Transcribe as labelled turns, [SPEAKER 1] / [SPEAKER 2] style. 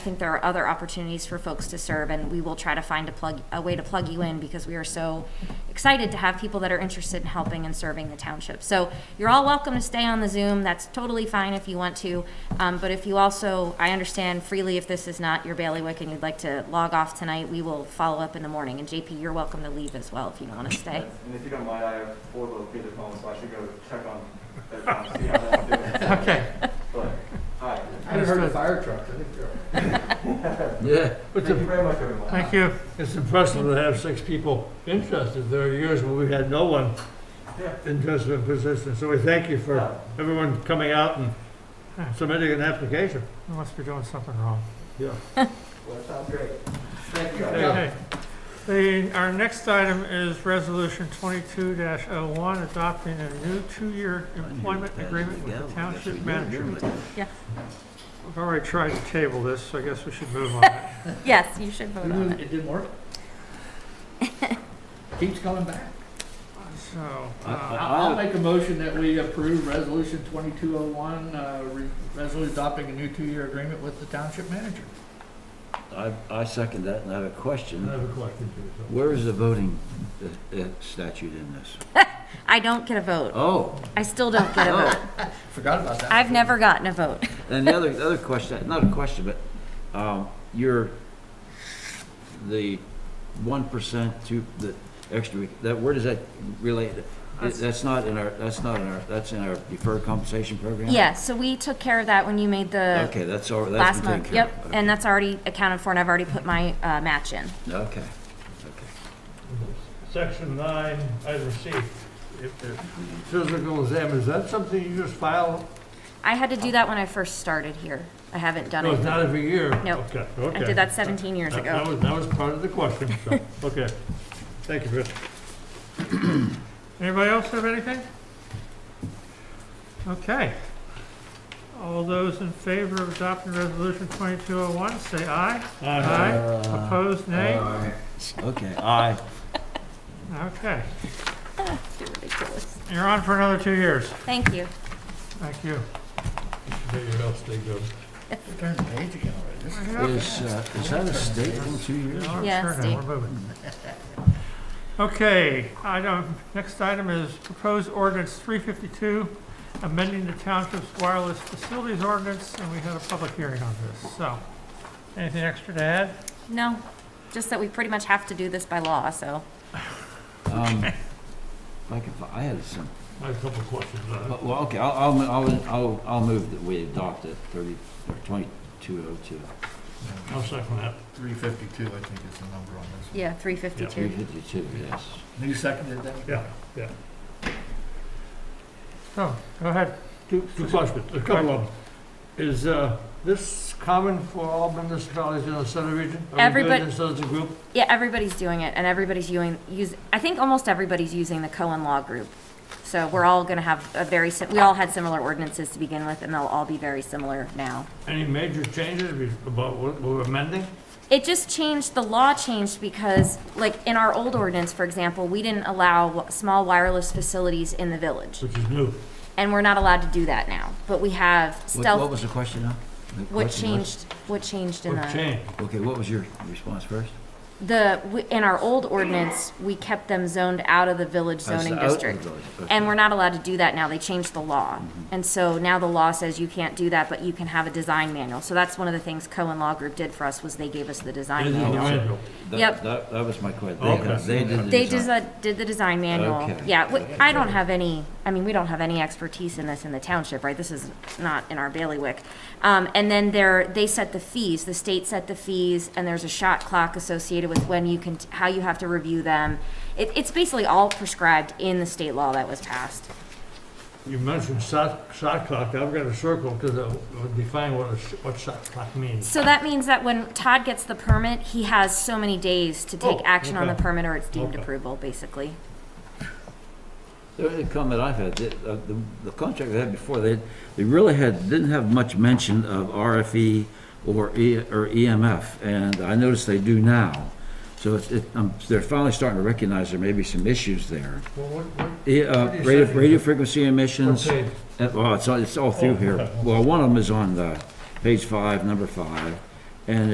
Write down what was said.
[SPEAKER 1] I think there are other opportunities for folks to serve, and we will try to find a plug, a way to plug you in, because we are so excited to have people that are interested in helping and serving the township. So you're all welcome to stay on the Zoom, that's totally fine if you want to, um, but if you also, I understand freely if this is not your bailiwick and you'd like to log off tonight, we will follow up in the morning, and JP, you're welcome to leave as well if you don't want to stay.
[SPEAKER 2] And if you don't mind, I have four little kids at home, so I should go check on their accounts, see how they're doing.
[SPEAKER 3] Okay.
[SPEAKER 2] But, all right.
[SPEAKER 4] I haven't heard of fire trucks, I think they're.
[SPEAKER 3] Yeah.
[SPEAKER 2] Thank you very much, everyone.
[SPEAKER 3] Thank you. It's impressive to have six people interested. There are years where we had no one
[SPEAKER 2] Yeah.
[SPEAKER 3] interested in position. So we thank you for everyone coming out and submitting an application.
[SPEAKER 5] Unless we're doing something wrong.
[SPEAKER 3] Yeah.
[SPEAKER 2] Well, that sounds great. Thank you. guys.
[SPEAKER 5] Okay. The, our next item is Resolution 22-01, adopting a new two-year employment agreement with the township manager.
[SPEAKER 1] Yeah.
[SPEAKER 5] We've already tried to table this, so I guess we should move on.
[SPEAKER 1] Yes, you should vote on it.
[SPEAKER 4] It didn't work? Keeps coming back.
[SPEAKER 5] So,
[SPEAKER 4] I-
[SPEAKER 5] uh,
[SPEAKER 4] I'll make a motion that we approve Resolution 2201, uh, re- resolution adopting a new two-year agreement with the township manager.
[SPEAKER 6] I, I second that, and I have a
[SPEAKER 3] I
[SPEAKER 6] question.
[SPEAKER 3] have a question too.
[SPEAKER 6] Where is the voting uh, uh, statute in this?
[SPEAKER 1] I don't get a vote,
[SPEAKER 6] Oh,
[SPEAKER 1] I still don't get a vote,
[SPEAKER 6] oh,
[SPEAKER 4] Forgot about that.
[SPEAKER 1] I've never gotten a vote.
[SPEAKER 6] and the other, the other question, not a question, but, um, your, the one percent to the extra, that, where does that relate?
[SPEAKER 5] That's-
[SPEAKER 6] That's not in our, that's not in our, that's in our deferred compensation program?
[SPEAKER 1] Yeah, so we took care of that when you made the
[SPEAKER 6] Okay, that's all, that's
[SPEAKER 1] last
[SPEAKER 6] been taken
[SPEAKER 1] month,
[SPEAKER 6] care of.
[SPEAKER 1] yep, and that's already accounted for, and I've already put my, uh, match in.
[SPEAKER 6] Okay,
[SPEAKER 3] Section nine, item C. If- if Physical exam, is that something you just file?
[SPEAKER 1] I had to do that when I first started here, I haven't done
[SPEAKER 3] No, it's
[SPEAKER 1] it,
[SPEAKER 3] not every year.
[SPEAKER 1] Nope.
[SPEAKER 3] Okay,
[SPEAKER 1] I
[SPEAKER 3] okay.
[SPEAKER 1] did that seventeen years
[SPEAKER 3] That- That
[SPEAKER 1] ago.
[SPEAKER 3] was, that was part of the question, so, okay. Thank you, Chris.
[SPEAKER 5] anybody else have anything? Okay. All those in favor of adopting Resolution 2201, say aye.
[SPEAKER 3] Uh,
[SPEAKER 4] Uh-huh.
[SPEAKER 5] Aye. Opposed, nay?
[SPEAKER 6] okay, aye.
[SPEAKER 5] Okay.
[SPEAKER 1] You're ridiculous.
[SPEAKER 5] You're on for another two years.
[SPEAKER 1] Thank you.
[SPEAKER 5] Thank you.
[SPEAKER 4] Turn the page again already. This is-
[SPEAKER 6] Is, uh, is that a state in two years?
[SPEAKER 5] Oh,
[SPEAKER 1] Yeah,
[SPEAKER 5] sure, now
[SPEAKER 1] Steve.
[SPEAKER 5] we're moving. Okay, item, next item is proposed ordinance 352, amending the township's wireless facilities ordinance, and we had a public hearing on this, so. Anything extra to add?
[SPEAKER 1] No, just that we pretty much have to do this by law, so.
[SPEAKER 6] Um, Like, if I had some,
[SPEAKER 3] I have a couple of questions. uh,
[SPEAKER 6] Well, well, okay, I'll, I'll, I'll, I'll, I'll move that we adopt it thirty, or twenty-two oh two,
[SPEAKER 3] I'll second that.
[SPEAKER 4] 352, I think is the number on this.
[SPEAKER 1] Yeah, three
[SPEAKER 6] three
[SPEAKER 1] fifty-two.
[SPEAKER 6] fifty-two, yes.
[SPEAKER 4] one. You seconded that?
[SPEAKER 3] Yeah, yeah.
[SPEAKER 5] So, go ahead.
[SPEAKER 3] Two, two questions, a couple of them. Is, uh, this common for all municipalities in the center region? Are we
[SPEAKER 1] Everybody-
[SPEAKER 3] doing this as a group?
[SPEAKER 1] Yeah, everybody's doing it, and everybody's using, use, I think almost everybody's using the Cohen Law Group. So we're all gonna have a very, sim- we all had similar ordinances to begin with, and they'll all be very similar now.
[SPEAKER 3] Any major changes we- about what we're amending?
[SPEAKER 1] It just changed, the law changed because, like, in our old ordinance, for example, we didn't allow w- small wireless facilities in the village.
[SPEAKER 3] Which is new.
[SPEAKER 1] And we're not allowed to do that now, but we have
[SPEAKER 6] What, what
[SPEAKER 1] stealth,
[SPEAKER 6] was the question now? The
[SPEAKER 1] what
[SPEAKER 6] question was-
[SPEAKER 1] changed, what changed in
[SPEAKER 3] What
[SPEAKER 1] the,
[SPEAKER 3] changed?
[SPEAKER 6] Okay, what was your response first?
[SPEAKER 1] the, w- in our old ordinance, we kept them zoned out of the village
[SPEAKER 6] Oh, it's
[SPEAKER 1] zoning
[SPEAKER 6] out of the
[SPEAKER 1] district.
[SPEAKER 6] village, okay.
[SPEAKER 1] And we're not allowed to do that now, they changed the law. And so now the law says you can't do that, but you can have a design manual. So that's one of the things Cohen Law Group did for us, was they gave us the
[SPEAKER 3] It
[SPEAKER 1] design
[SPEAKER 3] is
[SPEAKER 1] manual.
[SPEAKER 3] new annual.
[SPEAKER 6] That-
[SPEAKER 1] yep.
[SPEAKER 6] That, that was my question.
[SPEAKER 3] Okay.
[SPEAKER 6] They did the
[SPEAKER 1] They
[SPEAKER 6] design.
[SPEAKER 1] just uh, did the design manual.
[SPEAKER 6] Okay.
[SPEAKER 1] Yeah, w- I don't have any, I mean, we don't have any expertise in this in the township, right? This is not in our bailiwick. Um, And then there, they set the fees, the state set the fees, and there's a shot clock associated with when you can, how you have to review them. It, it's basically all prescribed in the state law that was passed.
[SPEAKER 3] You mentioned shot, shot clock, I've got a circle because it would define what a, sh- what shot clock means.
[SPEAKER 1] So that means that when Todd gets the permit, he has so many days to take
[SPEAKER 3] Oh,
[SPEAKER 1] action on the
[SPEAKER 3] okay.
[SPEAKER 1] permit or it's deemed
[SPEAKER 3] Okay.
[SPEAKER 1] approval, basically.
[SPEAKER 6] The only comment I've had, the, uh, the, the contract they had before, they, they really had, didn't have much mention of RFE or E, or EMF, and I notice they do now. So it's, it, um, they're finally starting to recognize there may be some issues there.
[SPEAKER 3] Well, what, what?
[SPEAKER 6] E- uh,
[SPEAKER 3] What do you
[SPEAKER 6] radio,
[SPEAKER 3] say?
[SPEAKER 6] radio frequency emissions,
[SPEAKER 3] Okay.
[SPEAKER 6] uh, well, it's, all- it's all
[SPEAKER 3] Oh,
[SPEAKER 6] through here.
[SPEAKER 3] okay.
[SPEAKER 6] Well, one of them is on the, page five, number five, And